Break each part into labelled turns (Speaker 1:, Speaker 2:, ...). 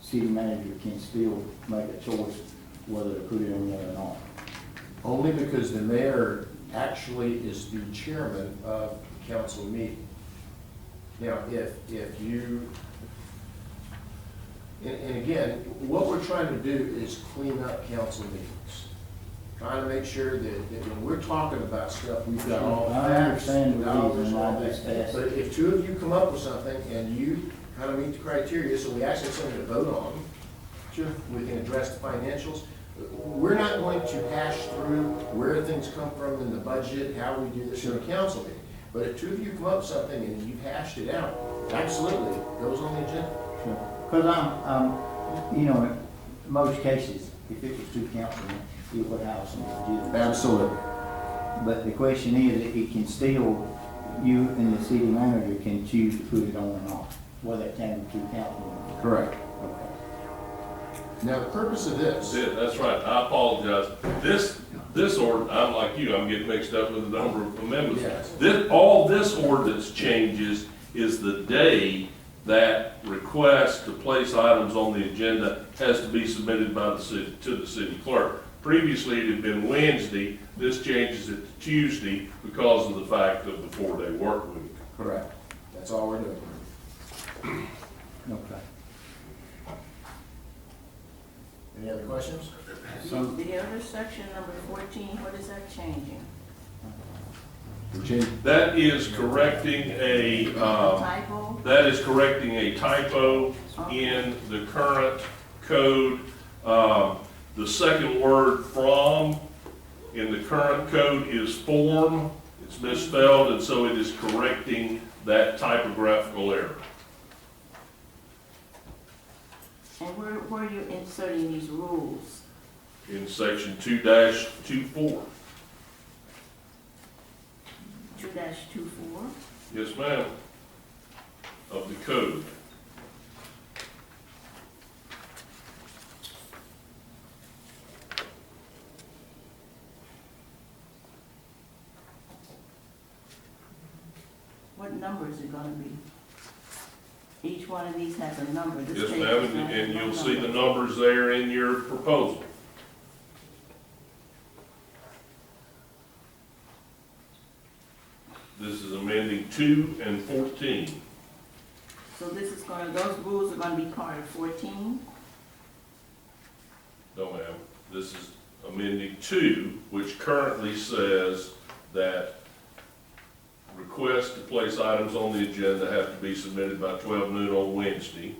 Speaker 1: city manager can still make a choice whether to put it in there or not.
Speaker 2: Only because the mayor actually is the chairman of the council meeting. Now, if, if you, and, and again, what we're trying to do is clean up council meetings. Trying to make sure that, that when we're talking about stuff, we've got all
Speaker 1: I
Speaker 2: facts,
Speaker 1: understand the
Speaker 2: dollars,
Speaker 1: reason why
Speaker 2: all
Speaker 1: this
Speaker 2: that.
Speaker 1: passed.
Speaker 2: But if two of you come up with something and you kind of meet the criteria, so we actually have something to vote on, Sure, we can address the financials. We're not going to hash through where things come from in the budget, how we do this in a council meeting. But if two of you come up with something and you've hashed it out, absolutely, it goes on the agenda.
Speaker 1: Because I'm, I'm, you know, in most cases, if it was two councilmen, it would have some legitimate.
Speaker 2: Absolutely.
Speaker 1: But the question is, if it can still, you and the city manager can choose to put it on or not, whether it came to two councilmen.
Speaker 2: Correct.
Speaker 1: Okay.
Speaker 2: Now, the purpose of this,
Speaker 3: That's it, that's right, I apologize. This, this ord, I'm like you, I'm getting mixed up with the number of amendments.
Speaker 2: Yes.
Speaker 3: This, all this ordinance changes is the day that request to place items on the agenda has to be submitted by the city, to the city clerk. Previously, it had been Wednesday, this changes it to Tuesday because of the fact of the four-day work week.
Speaker 2: correct, that's all we're doing.
Speaker 1: Okay.
Speaker 2: Any other questions?
Speaker 1: So-
Speaker 4: The other section, number fourteen, what is that changing?
Speaker 2: Virginia.
Speaker 3: That is correcting a, um,
Speaker 4: Typo?
Speaker 3: That is correcting a typo in the current code. Um, The second word from in the current code is form. It's misspelled, and so it is correcting that typographical error.
Speaker 4: And where, where are you inserting these rules?
Speaker 3: In section two dash two four.
Speaker 4: Two dash two four?
Speaker 3: Yes, ma'am. Of the code.
Speaker 4: What number is it gonna be? Each one of these has a number. This
Speaker 3: Yes,
Speaker 4: page
Speaker 3: ma'am,
Speaker 4: does not
Speaker 3: and-
Speaker 4: have
Speaker 3: and
Speaker 4: no
Speaker 3: you'll see the
Speaker 4: number.
Speaker 3: numbers there in your proposal. This is amending two and fourteen.
Speaker 4: So this is gonna, those rules are gonna be part of fourteen?
Speaker 3: No, ma'am, this is amending two, which currently says that requests to place items on the agenda have to be submitted by twelve noon on Wednesday.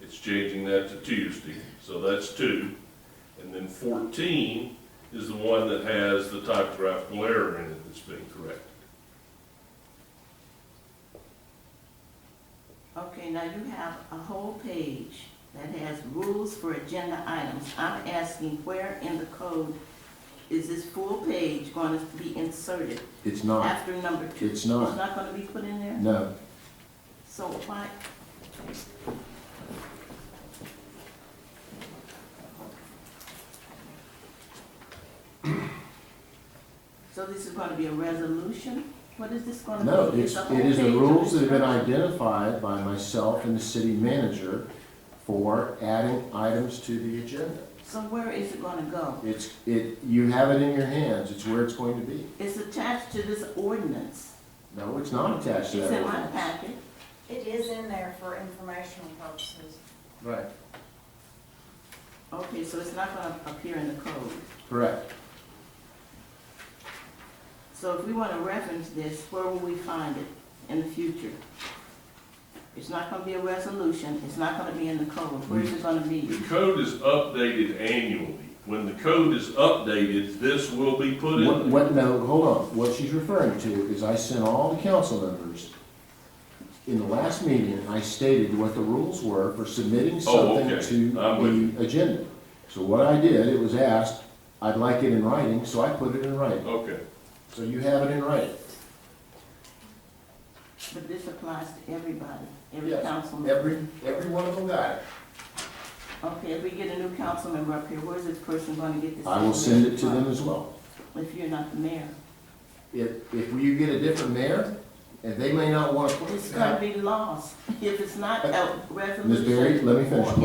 Speaker 3: It's changing that to Tuesday, so that's two. And then fourteen is the one that has the typographical error in it that's being corrected.
Speaker 4: Okay, now you have a whole page that has rules for agenda items. I'm asking where in the code is this full page gonna be inserted
Speaker 2: It's not,
Speaker 4: after number two?
Speaker 2: It's not.
Speaker 4: It's not gonna be put in there?
Speaker 2: no,
Speaker 4: So why? So this is gonna be a resolution? What is this gonna be?
Speaker 2: no, it's,
Speaker 4: a whole
Speaker 2: it is the
Speaker 4: page of
Speaker 2: rules that have been
Speaker 4: instructions.
Speaker 2: identified by myself and the city manager for adding items to the agenda.
Speaker 4: So where is it gonna go?
Speaker 2: It's, it, you have it in your hands, it's where it's going to be.
Speaker 4: It's attached to this ordinance.
Speaker 2: No, it's not attached
Speaker 4: It's
Speaker 2: to that.
Speaker 4: in my
Speaker 2: ordinance.
Speaker 4: packet.
Speaker 5: It is in there for informational purposes.
Speaker 2: Right,
Speaker 4: Okay, so it's not gonna appear in the code.
Speaker 2: correct.
Speaker 4: So if we wanna reference this, where will we find it in the future? It's not gonna be a resolution, it's not gonna be in the code, where is it gonna
Speaker 3: The
Speaker 4: be?
Speaker 3: code is updated annually. When the code is updated, this will be put in.
Speaker 2: What,
Speaker 3: there.
Speaker 2: what, no, hold on, what she's referring to is I sent all the council members, in the last meeting, I stated what the rules were for submitting
Speaker 3: Oh,
Speaker 2: something
Speaker 3: okay.
Speaker 2: to
Speaker 3: I'm with
Speaker 2: the agenda. So what I did, it was asked, I'd like it in writing, so I put it in writing.
Speaker 3: Okay.
Speaker 2: So you have it in writing.
Speaker 4: But this applies to everybody, every
Speaker 2: Yes,
Speaker 4: council member.
Speaker 2: Every, every one of them got it.
Speaker 4: Okay, if we get a new council member up here, where's this person gonna get this?
Speaker 2: I will send it to them
Speaker 4: information
Speaker 2: as well.
Speaker 4: from If you're not the mayor.
Speaker 2: If, if you get a different mayor, and they may not want to.
Speaker 4: It's gonna be lost if it's not a resolution.
Speaker 2: Ms. Uh, Berry, let me finish,
Speaker 4: or